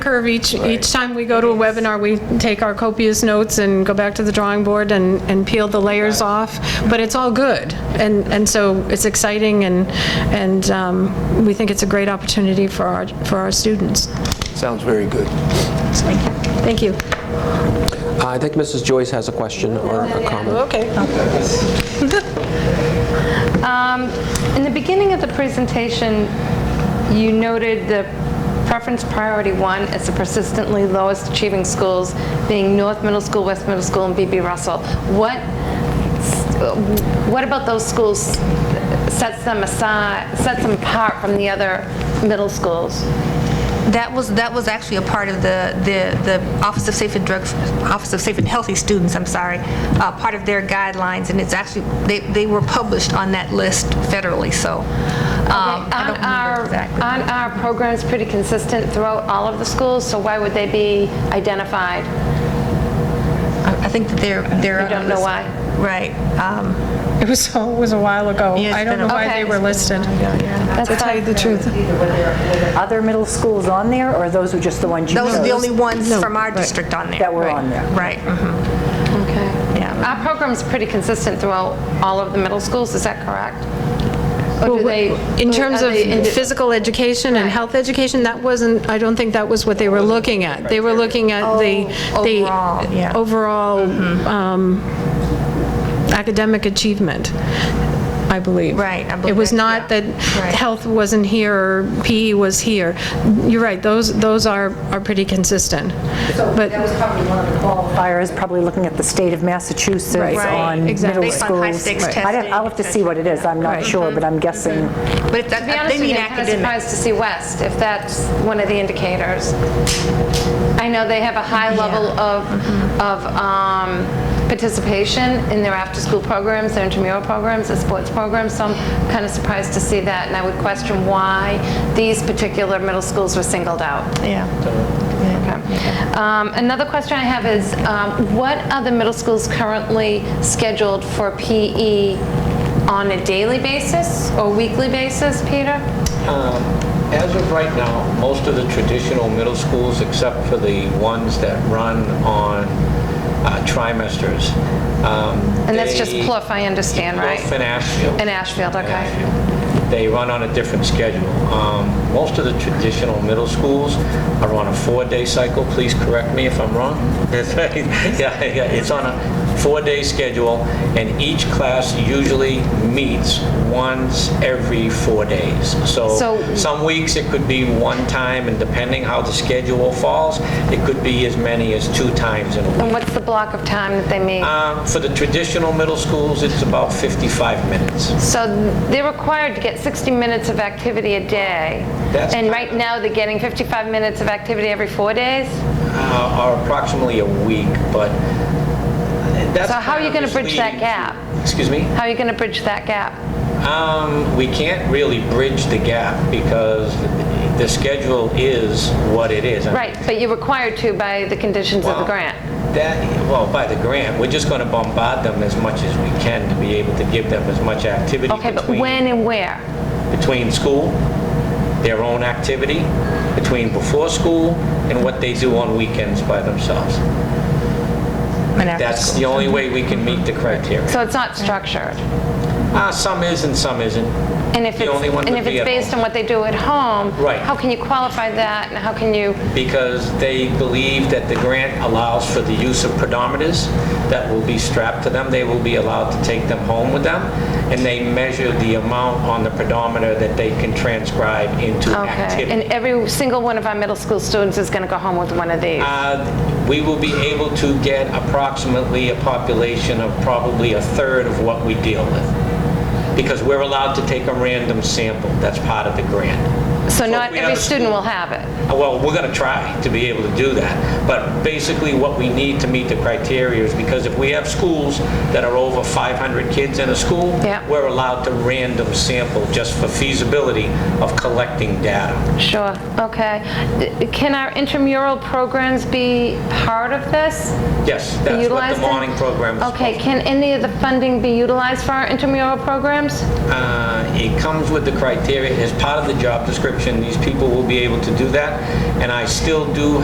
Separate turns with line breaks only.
curve each, each time we go to a webinar, we take our copious notes and go back to the drawing board and, and peel the layers off, but it's all good. And, and so it's exciting and, and um, we think it's a great opportunity for our, for our students.
Sounds very good.
Thank you.
I think Mrs. Joyce has a question or a comment.
Okay.
In the beginning of the presentation, you noted the preference priority one as the persistently lowest achieving schools being North Middle School, West Middle School, and BB Russell. What, what about those schools sets them aside, sets them apart from the other middle schools? Um,
That was, that was actually a part of the, the, the Office of Safe and Drug, Office of Safe and Healthy Students, I'm sorry, uh, part of their guidelines, and it's actually, they, they were published on that list federally, so. um, I
On
don't remember
our,
exactly.
on our program's pretty consistent throughout all of the schools, so why would they be identified?
I I think that they're, they're.
You don't
on the
know
list.
why?
Right. um,
It was, oh, it was a while ago.
Yeah, it's
I don't
been a
know why
while.
they were listed.
That's
To tell you the truth.
Either were there were there other middle schools on there, or those were just the ones you chose?
Those are the only ones from our district on there.
That were on there.
Right, mhm,
Okay.
yeah.
Our program's pretty consistent throughout all of the middle schools, is that correct? Or do they?
In terms
are
of
they indi-
physical education and health education, that wasn't, I don't think that was what they were looking at. They were looking at the,
Oh, overall,
the
yeah. Mm-hmm.
overall um, academic achievement, I believe.
Right, I
It
believe
was
that,
not
yeah.
that
Right.
health wasn't here, or PE was here. You're right, those, those are, are pretty consistent. But
That was probably one of the qualifiers, probably looking at the state of Massachusetts on middle schools.
exactly.
Based on high stakes
Right. I don't- I'll have to see what it is, I'm not sure, but I'm guessing,
But if that-
To be honest
they
with you,
mean
I'm kind of
academic.
surprised to see West, if that's one of the indicators. I know they have a high level of, of um, participation in their after-school programs, their intramural programs, their sports programs, so I'm kind of surprised to see that, and I would question why these particular middle schools were singled out. Okay. Um, Another question I have is, um, what are the middle schools currently scheduled for PE on a daily basis or weekly basis, Peter?
Um, As of right now, most of the traditional middle schools, except for the ones that run on uh, trimesters. um,
And that's just
plus.
Plouffe, I understand, right?
Plouffe and Ashfield.
In Ashfield, okay.
Uh, They run on a different schedule. Um, Most of the traditional middle schools are on a four-day cycle. Please correct me if I'm wrong. That's right. Yeah, yeah, It's on a four-day schedule, and each class usually meets once every four days.
So-
So some weeks, it could be one time, and depending how the schedule falls, it could be as many as two times in a week.
And what's the block of time that they meet?
Um, For the traditional middle schools, it's about 55 minutes.
So they're required to get 60 minutes of activity a day.
That's-
And right now, they're getting 55 minutes of activity every four days?
uh, are approximately a week, but that's...
So how are you
kind of
gonna bridge that
misleading.
gap?
Excuse me?
How are you going to bridge that gap?
Um, We can't really bridge the gap because the schedule is what it is. I mean,
Right, but you're required to by the conditions of the
Well,
grant.
That, well, by the grant, we're just going to bombard them as much as we can to be able to give them as much activity
Okay, but
between-
when and where?
between school, their own activity, between before school, and what they do on weekends by themselves.
And after
That's the only way we can meet the criteria.
Mm-hmm. So it's not structured.
Uh, some is and some isn't.
And if
The
it's,
only one
and
would
if
be
it's
at
based on
home.
what they do at home,
Right.
how can you qualify that and how can you,
Because they believe that the grant allows for the use of pedometers that will be strapped to them. They will be allowed to take them home with them. And they measure the amount on the pedometer that they can transcribe into
okay.
activity.
And every single one of our middle school students is going to go home with one of these.
Uh, We will be able to get approximately a population of probably a third of what we deal with. Because we're allowed to take a random sample. That's part of the grant.
So
if
not
we have
every
a
student
school-
will have it.
Well, we're going to try to be able to do that, but basically what we need to meet the criteria is because if we have schools that are over 500 kids in a school,
Yeah.
we're allowed to random sample just for feasibility of collecting data.
Sure, okay. D- Can our intramural programs be part of this?
Yes, that's what
Utilize
the
them?
morning program is.
Okay, can any of the funding be utilized for our intramural programs?
Uh, It comes with the criteria, as part of the job description, these people will be able to do that, and I still do